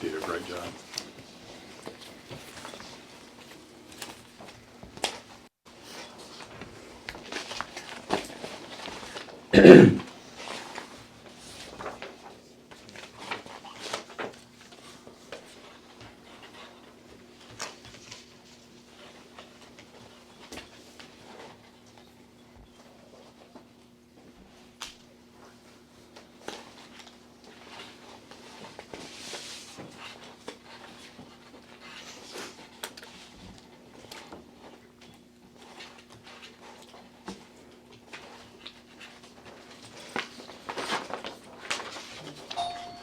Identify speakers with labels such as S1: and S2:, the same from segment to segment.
S1: did a great job.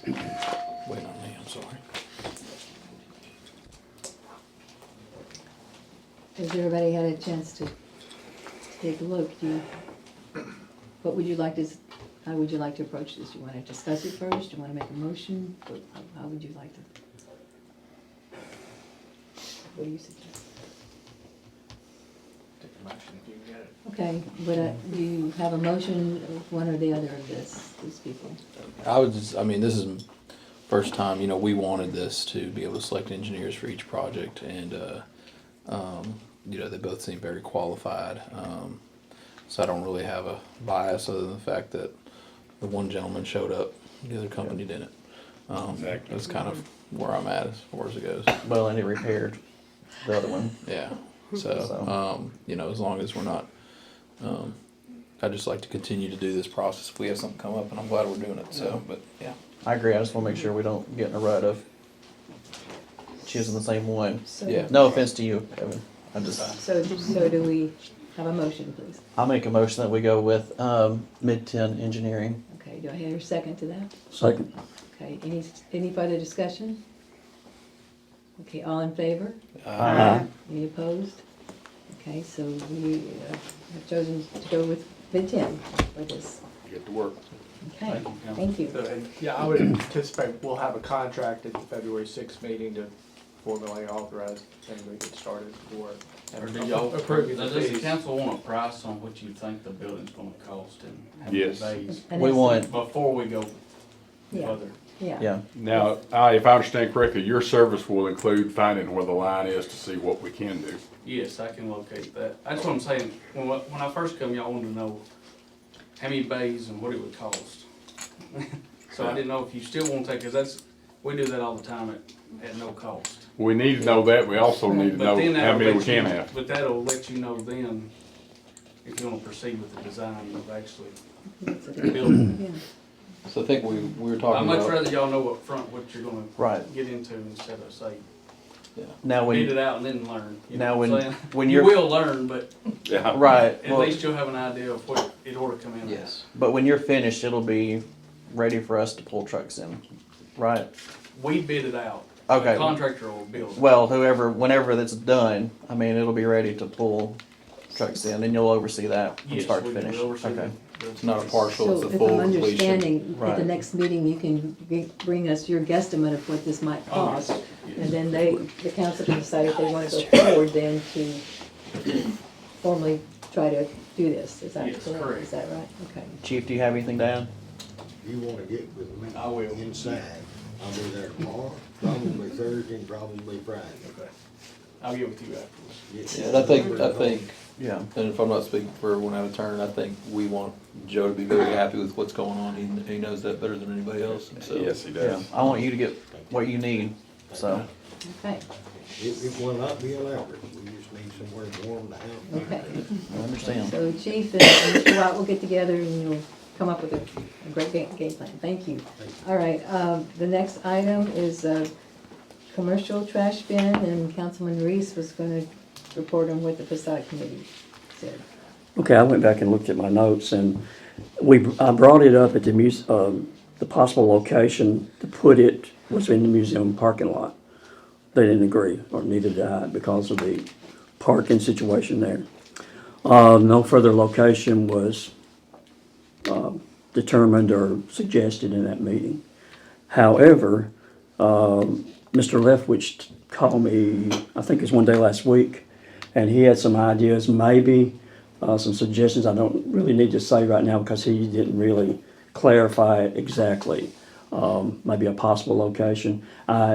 S2: Wait on me, I'm sorry.
S3: Has everybody had a chance to take a look? Do you, what would you like to, s- how would you like to approach this? Do you want to discuss it first? Do you want to make a motion? What- how- How would you like to? What do you suggest?
S4: Take a motion if you can get it.
S3: Okay, but uh, do you have a motion of one or the other of this, these people?
S2: I was, just- I mean, this is m- first time, you know, we wanted this to be able to select engineers for each project and, uh, um, you know, they both seem very qualified. Um, so I don't really have a bias other than the fact that the one gentleman showed up, the other company didn't. Um,
S1: Exactly.
S2: that's kind of where I'm at as far as it goes.
S5: Well, and it repaired the other one.
S2: Yeah. So,
S5: So-
S2: um, you know, as long as we're not, um, I just like to continue to do this process if we have something come up and I'm glad we're doing it. So, but yeah.
S5: I agree. I just want to make sure we don't get in a rut of choosing the same one.
S3: So-
S2: Yeah.
S5: No offense to you, Kevin. I just
S3: So, so do we have a motion, please?
S5: I'll make a motion that we go with um, Mid Ten Engineering.
S3: Okay, do I hear a second to that?
S6: Second.
S3: Okay, any, any further discussion? Okay, all in favor?
S5: Aye.
S3: Any opposed? Okay, so we uh, have chosen to go with bid ten for this.
S1: Get to work.
S3: Okay, thank you.
S4: So, and, yeah, I would anticipate we'll have a contract at the February sixth meeting to formally authorize and we get started for.
S7: Or do y'all,
S4: Approving the
S7: does the
S4: fees.
S7: council want a price on what you think the building's gonna cost and how many
S1: Yes.
S7: days?
S3: An
S5: We
S3: estimate.
S5: want-
S7: Before we go
S3: Yeah,
S7: further.
S3: yeah.
S5: Yeah.
S1: Now, I, if I understand correctly, your service will include finding where the line is to see what we can do.
S7: Yes, I can locate that. That's what I'm saying. When, I- when I first come, y'all wanted to know how many bays and what it would cost. So I didn't know if you still want to take, cause that's, we do that all the time at, at no cost.
S1: We need to know that, we also need to
S7: But
S1: know
S7: then
S1: how
S7: that'll
S1: many we
S7: let you-
S1: can have.
S7: But that'll let you know then if you wanna proceed with the design of actually building.
S3: Yeah.
S2: So I think we, we were
S7: I'd
S2: talking
S7: much
S2: about,
S7: rather y'all know up front what you're gonna
S5: Right.
S7: get into instead of say,
S5: Now
S7: beat
S5: when
S7: it out and then learn. you
S5: now
S7: know what
S5: when
S7: I'm saying?
S5: when
S7: You
S5: you're
S7: will learn, but
S1: Yeah.
S5: right.
S7: at
S5: well,
S7: least you'll have an idea of what it ought to come in. at.
S2: yes.
S5: but when you're finished, it'll be ready for us to pull trucks in. Right.
S7: We bid it out.
S5: Okay.
S7: The Contractor will build. it.
S5: Well, whoever, whenever that's done, I mean, it'll be ready to pull trucks in, and you'll oversee that from
S7: Yes,
S5: start to
S7: we will
S5: finish.
S7: oversee
S5: Okay.
S7: the-
S2: It's not a partial, it's
S3: So
S2: a
S3: if
S2: full
S3: I'm
S2: completion.
S3: understanding, at the
S5: Right.
S3: next meeting, you can be- bring us your guesstimate of what this might
S7: Oh,
S3: cost.
S7: yes.
S3: And then they, the council can decide if they want to go forward then to formally try to do this. Is that
S7: Yes,
S3: correct?
S7: correct.
S3: Is that right? Okay.
S5: Chief, do you have anything to add?
S8: You wanna get with me?
S7: I will.
S8: Inside, I'll be there tomorrow, probably Thursday, and probably Friday.
S7: Okay. I'll get with you afterwards.
S2: Yeah, and I think, I think,
S5: Yeah.
S2: and if I'm not speaking for everyone out of turn, I think we want Joe to be very happy with what's going on. He, he knows that better than anybody else. and So
S1: Yes, he
S5: Yeah.
S1: does.
S5: I want you to get what you need, so.
S3: Okay,
S8: It, it will not be elaborate, we just need somewhere warm to have.
S3: okay.
S5: I understand.
S3: So Chief and Mr. White will get together and you'll come up with a a great ga- game plan. Thank you. All right, um, the next item is uh, commercial trash bin, and Councilman Reese was going to report on what the facade committee said.
S6: Okay, I went back and looked at my notes and we, I brought it up at the muse, um, the possible location to put it was in the museum parking lot. They didn't agree, or neither did I, because of the parking situation there. Uh, no further location was, um, determined or suggested in that meeting. However, Mr. Leftwich called me, I think it was one day last week, and he had some ideas, maybe, uh, some suggestions I don't really need to say right now because he didn't really clarify it exactly. Um, maybe a possible location. I